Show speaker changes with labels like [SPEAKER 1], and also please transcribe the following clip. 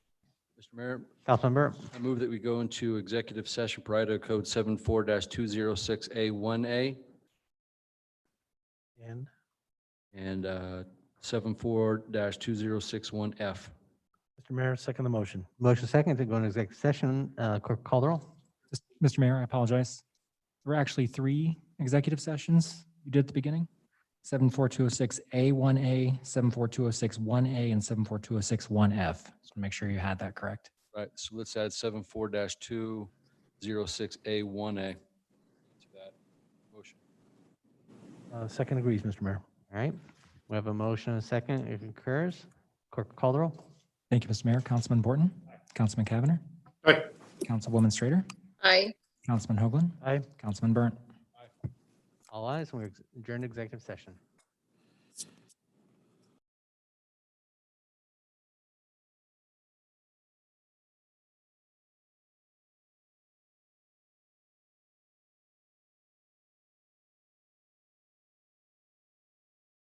[SPEAKER 1] Mr. Mayor,
[SPEAKER 2] Councilmember,
[SPEAKER 1] I move that we go into executive session per Idaho Code 74-206A1A
[SPEAKER 2] and
[SPEAKER 1] and uh, 74-2061F.
[SPEAKER 2] Mr. Mayor, second the motion. Motion second to go into executive session. Uh, Clerk Colerole?
[SPEAKER 3] Just- Mr. Mayor, I apologize. There were actually three executive sessions you did at the beginning. 74206A1A, 74206-1A, and 74206-1F. Just make sure you had that correct.
[SPEAKER 1] Right, so let's add 74-206A1A to that motion.
[SPEAKER 2] Uh, Second agrees, Mr. Mayor. All right. We have a motion and a second. It concurs. Clerk Colerole?
[SPEAKER 3] Thank you, Mr. Mayor. Councilman Borton. Councilman Cavanagh.
[SPEAKER 4] Aye.
[SPEAKER 3] Councilwoman Strader.
[SPEAKER 5] Aye.
[SPEAKER 3] Councilman Hoagland.
[SPEAKER 2] Aye.
[SPEAKER 3] Councilman Burnt.
[SPEAKER 2] All ayes, and we're adjourned executive session.